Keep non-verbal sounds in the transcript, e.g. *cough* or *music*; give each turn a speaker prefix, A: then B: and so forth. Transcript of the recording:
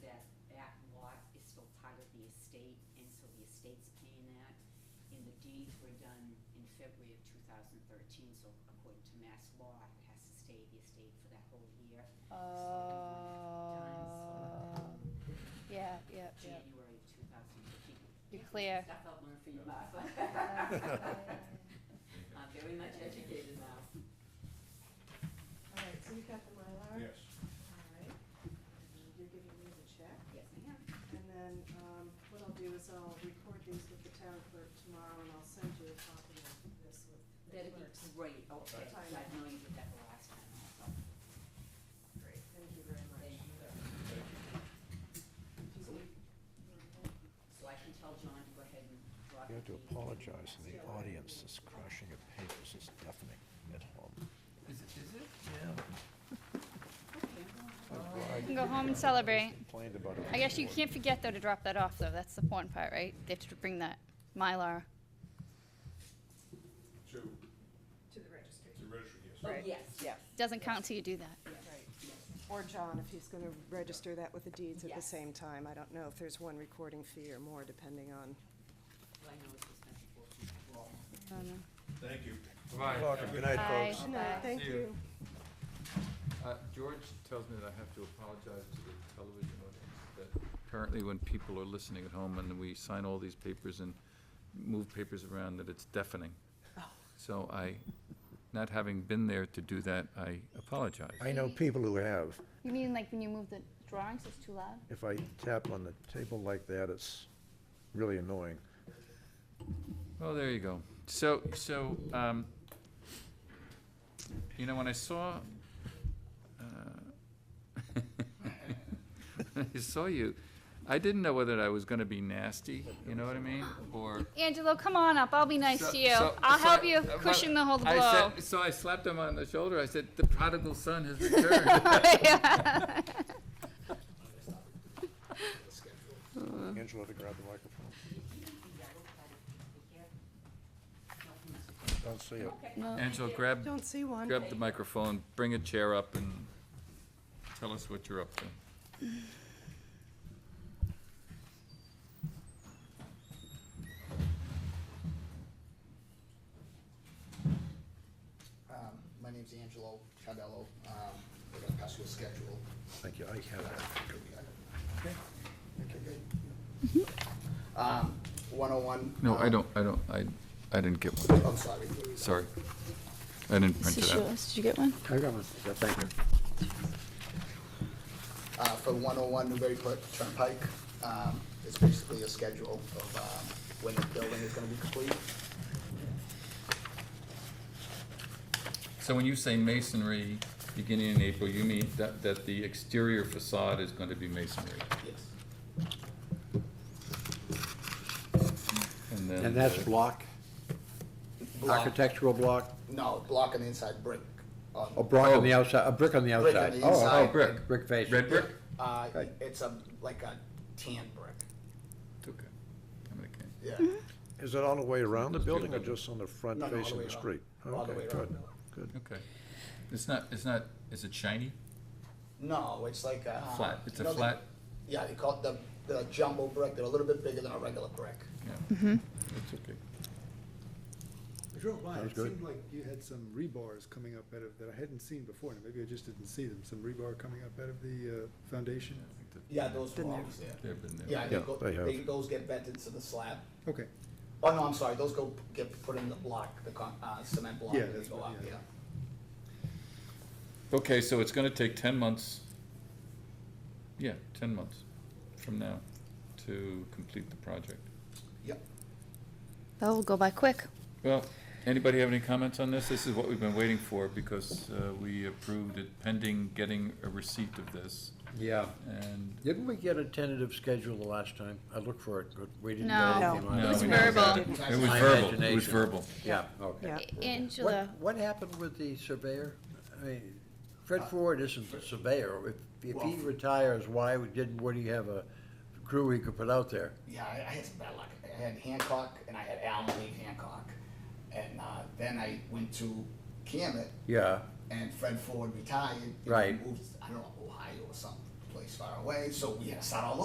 A: estate, and so the estate's paying that. And the deeds were done in February of two thousand thirteen, so according to mass law, it has to stay the estate for that whole year. So we
B: Uh,
A: want it done,
B: yeah, yeah,
A: so
B: yeah.
A: January of two thousand fifteen.
B: You're
C: *laughs*
B: clear.
A: Stuff I've learned from you, *laughs*
B: yeah,
A: Martha. I'm very much educated now.
D: All right, so you've got the Mylar?
E: Yes.
D: All right, and you're giving me the check.
A: Yes, I am.
D: And then, um, what I'll do is I'll record these with the town clerk tomorrow, and I'll send you a copy of this with the
A: That'd be
D: clerks.
A: great, Oh, okay,
D: Okay.
A: I know you did that the last time also.
D: Great, thank you very much.
A: Thank you. So I can tell John to go ahead and drop.
F: You have to
A: the-
F: apologize in the audience, this crushing of papers is deafening at home.
C: Is it, is it?
A: Okay, I'm going.
B: You can go home and celebrate.
F: Complained about it.
B: I guess you can't forget, though, to drop that off, though. That's the important part, right? They have to bring that Mylar.
E: To,
D: To the registry.
E: to register, yes.
A: Oh,
D: Right.
A: yes, yes,
B: Doesn't count till you do that.
A: yes, yes.
D: Or John, if he's gonna register that with the deeds at the
A: Yes.
D: same time. I don't know if there's one recording fee or more, depending on.
A: Well, I know it's expensive for people.
B: Oh, no.
E: Thank you.
F: Welcome. Good night,
B: Bye.
F: folks.
B: No, Okay.
D: Thank
C: See you.
D: you.
C: Uh, George tells me that I have to apologize to the television audience, that apparently when people are listening at home and we sign all these papers and move papers around, that it's deafening. So I, not having been there to do that, I apologize.
F: I know people who have.
B: You mean like when you move the drawings, it's too loud?
F: If I tap on the table like that, it's really annoying.
C: Well, there you go. So, so, um, you know, when I saw, uh, when uh, *laughs* I saw you, I didn't know whether I was gonna be nasty, you know what I mean, or.
B: Angelo, come on up. I'll be nice
C: So-
B: to you.
C: so-
B: I'll
C: so
B: help
C: I-
B: you
C: uh,
B: cushion the whole blow.
C: I
B: *laughs*
C: said- *laughs* So I slapped him on the shoulder. I said, "The prodigal son has returned."
B: *laughs*
F: Angela, to grab the microphone. Don't see it.
C: Angela, grab,
D: Don't see one.
C: grab the microphone, bring a chair up, and tell us what you're up to.
G: Um, My name's Angelo Cardello. Um, I got a Pascal schedule.
F: Thank you. I have it.
G: Okay, good. Um, 101.
C: No, I
G: um,
C: don't, I don't, I, I didn't get one.
G: I'm sorry.
C: Sorry. I didn't print it out.
B: Did you get one?
F: I got one. Thank you.
G: Uh, For 101 Newbury Port Turnpike, um, it's basically a schedule of um, when the building is going to be complete.
C: So when you say masonry beginning in April, you mean that, that the exterior facade is going to be masonry?
G: Yes.
C: And then.
H: And that's
C: the-
H: block, architectural block,
G: No, block on the inside, brick. on-
H: a block on the outside, a brick on the
G: Brick on
H: outside.
G: the
H: Oh, oh,
G: inside.
C: Oh, brick.
H: Brick face.
C: Red brick?
G: Uh,
H: Right.
G: It's a, like a tan brick.
C: Okay. I'm gonna- okay.
G: Yeah.
F: Is it all the way around the
C: Just do
F: building or
C: that.
F: just on the front
G: No, no, all the
F: facing
G: way
F: the
G: around.
F: street?
G: All the
F: Okay,
G: way around the
F: good,
G: building.
F: good.
C: Okay. It's not, it's not, is it shiny?
G: No, it's like a. uh,
C: Flat. It's a
G: you know the-
C: flat-
G: Yeah, they call it the the jumbo brick. They're a little bit bigger than a regular brick.
C: Yeah. It's okay.
I: I drove by,
F: Sounds
I: it
F: good.
I: seemed like you had some rebars coming up out of, that I hadn't seen before, and maybe I just didn't see them, some rebar coming up out of the uh, foundation.
C: I think that-
G: Yeah, those were
D: Been there.
G: always there.
C: They've been there.
G: Yeah,
F: Yeah,
G: they go,
F: they have.
G: they, those get vented to the slab.
I: Okay,
G: Oh, no, I'm sorry, those go, get put in the block, the con, uh, cement block,
I: Yeah,
G: and they
I: that's
G: go
I: what-
G: up,
I: yeah.
G: yeah.
C: Okay, so it's gonna take ten months, yeah, ten months from now to complete the project.
G: Yep.
B: That will go by quick.
C: Well, anybody have any comments on this? This is what we've been waiting for, because uh, we approved it pending getting a receipt of this,
H: Yeah.
C: and,
H: Didn't we get a tentative schedule the last time? I looked for it, but we didn't
B: No.
H: get anything on
C: No,
H: it.
C: it was
B: verbal.
C: it was
G: My
C: verbal, it was
H: imagination.
C: verbal.
H: Yeah, okay.
D: Yeah.
B: Angela.
H: What, what happened with the surveyor? I mean, Fred Ford isn't the surveyor. If, if he
G: Well-
H: retires, why didn't Woody have a crew he could put out there?
G: Yeah, I, I had some bad luck. I had Hancock, and I had Alan Lee Hancock. And, uh, then I went to Camet,
H: Yeah,
G: and Fred Ford retired. and
H: Right.
G: Moved, I don't know, Ohio or some place far away, so we had to start all